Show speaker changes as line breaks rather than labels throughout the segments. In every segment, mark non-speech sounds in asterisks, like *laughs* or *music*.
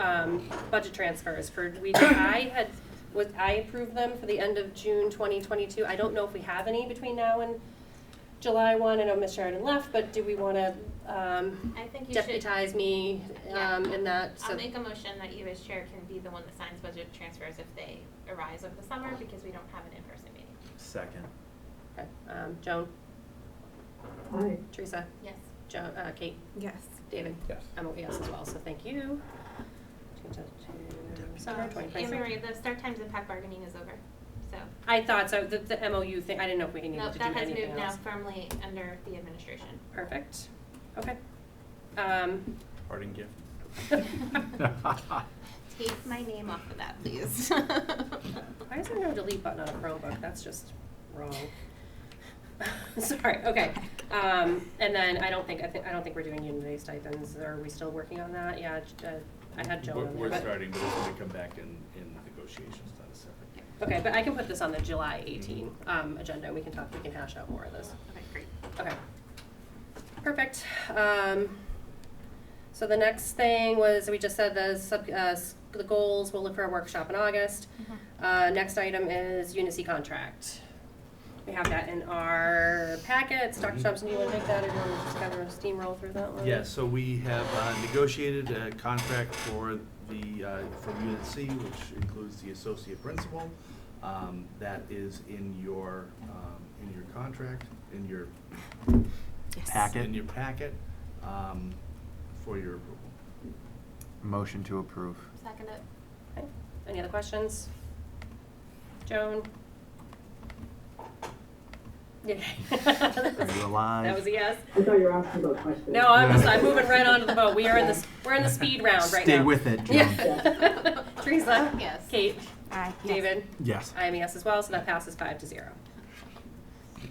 um, budget transfers for, we, I had, was, I approved them for the end of June twenty twenty-two. I don't know if we have any between now and July one. I know Ms. Sheridan left, but do we wanna, um,
I think you should,
deputize me,
Yeah.
um, in that, so.
I'll make a motion that you as chair can be the one that signs budget transfers if they arise over the summer because we don't have an in-person meeting.
Second.
Okay, Um, Joan,
Aye.
Teresa,
Yes.
Jo, uh, Kate,
Yes.
David.
Yes.
I'm a yes as well, so thank you. Change that to
Deputize.
summer twenty
Anne
twenty-four.
Marie, the start times of PAC bargaining is over, so.
I thought so, the, the MOU thing, I didn't know if we needed
No,
to do anything
that
else.
has moved now firmly under the administration.
Perfect, okay. Um, *laughs*
Parting gift.
Take my name off of that, *laughs* please.
Why is there no delete button on a Chromebook? That's just wrong. *laughs* Sorry, okay. Um, and then I don't think, I think, I don't think we're doing unity stipends. Are we still working on that? Yeah, j- uh, I had Joan
We're,
on there.
we're
but-
starting, but it's gonna come back in, in negotiations, not a separate.
Okay, but I can put this on the July eighteen, um, agenda. We can talk, we can hash out more of this.
Okay, great.
Okay. Perfect. Um, so the next thing was, we just said the sub, uh, s- the goals, we'll look for a workshop in August.
Mm-hmm.
Uh, next item is Unicy contract. We have that in our packets. Dr.
Mhm.
Thompson, do you wanna take that or do you wanna just kind of steamroll through that one?
Yeah, so we have uh, negotiated a contract for the, uh, for Unit C, which includes the associate principal. Um, That is in your, um, in your contract, in your, in your packet um, for your approval.
Motion to approve.
Second it.
Okay. Any other questions? Joan? Yeah.
you alive?
That was a yes.
I thought you were asking about questions.
No, I'm just, I'm moving right onto the boat. We are in the, we're in the speed round right now.
Stay with it, Joan.
Yeah. *laughs* Teresa?
Yes.
Kate?
Aye.
David?
Yes.
I am a yes as well, so that passes five to zero.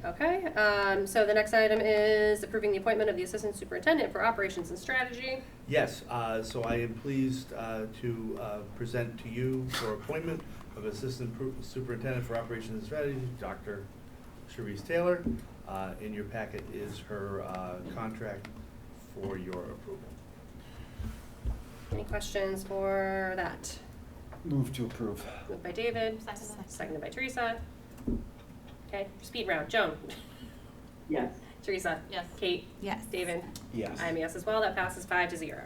Okay, um, so the next item is approving the appointment of the Assistant Superintendent for Operations and Strategy.
Yes, uh, so I am pleased uh, to uh, present to you for appointment of Assistant Pro- Superintendent for Operations and Strategy, Dr. Sharice Taylor. Uh, In your packet is her uh, contract for your approval.
Any questions for that?
Move to approve.
Moved by David,
Second it.
seconded by Teresa. Okay, speed round, Joan, *laughs*
Yes.
Teresa,
Yes.
Kate,
Yes.
David.
Yes.
I'm a yes as well, that passes five to zero.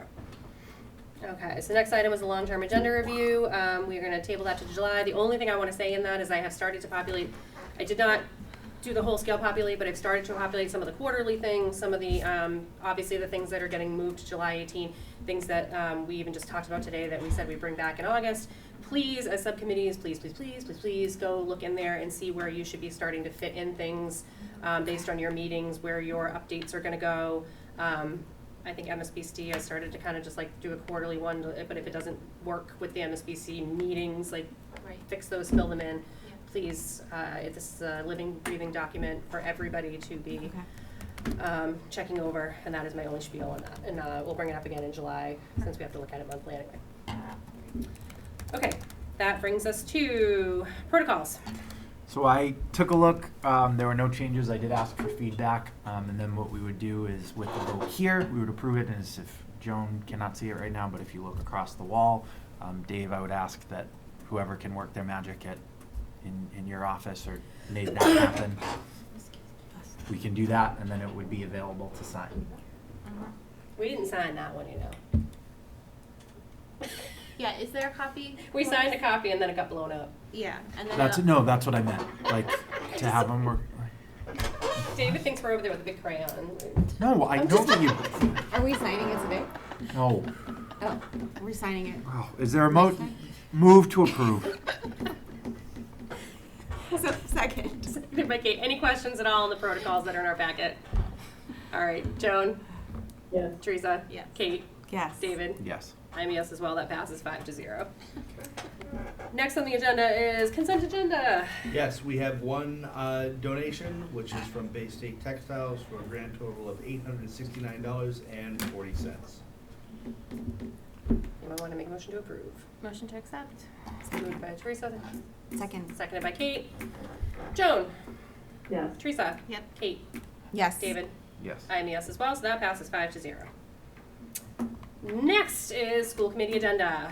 Okay, so next item is the long-term agenda review, um, we are gonna table that to July, the only thing I wanna say in that is I have started to populate, I did not do the whole scale populate, but I've started to populate some of the quarterly things, some of the, um, obviously the things that are getting moved to July eighteen, things that, um, we even just talked about today that we said we bring back in August. Please, as subcommittees, please, please, please, please, please go look in there and see where you should be starting to fit in things, um, based on your meetings, where your updates are gonna go. Um, I think MSBC, I started to kind of just like do a quarterly one, but if it doesn't work with the MSBC meetings, like
Oh, Right.
fix those, fill them in.
Yeah.
Please, uh, this is a living, breathing document for everybody to be,
Okay.
um, checking over, and that is my only spiel on that. And, uh, we'll bring it up again in July, since we have to look at it monthly anyway. Okay, that brings us to protocols.
So I took a look. Um, there were no changes. I did ask for feedback, um, and then what we would do is with the vote here, we would approve it. And as if Joan cannot see it right now, but if you look across the wall, um, Dave, I would ask that whoever can work their magic at in, in your office or made that happen, we can do that, and then it would be available to sign.
We didn't sign that one, you know. *laughs*
Yeah, is there a copy?
We signed a copy and then it got blown up.
Yeah, and then.
That's
it'll-
no, that's what I meant. Like to have them work.
David thinks we're over there with a big crayon.
No, I
I'm
know
just-
that you.
Are we signing it today?
No.
Oh, we're signing it. *laughs*
Wow. Is there a mo- move to approve?
So, second.
Becky, any questions at all on the protocols that are in our packet? All right, Joan,
Yes.
Teresa,
Yes.
Kate,
Yes.
David.
Yes.
I'm a yes as well. That passes five to zero. Next on the agenda is consent agenda.
Yes, we have one uh, donation, which is from Bay State Textiles for a grand total of eight hundred and sixty-nine dollars and forty cents.
Anyone want to make a motion to approve?
Motion to accept?
It's been Moved by Teresa,
Second.
seconded by Kate. Joan,
Yes.
Teresa,
Yep.
Kate,
Yes.
David.
Yes.
I am a yes as well, so that passes five to zero. Next is school committee agenda.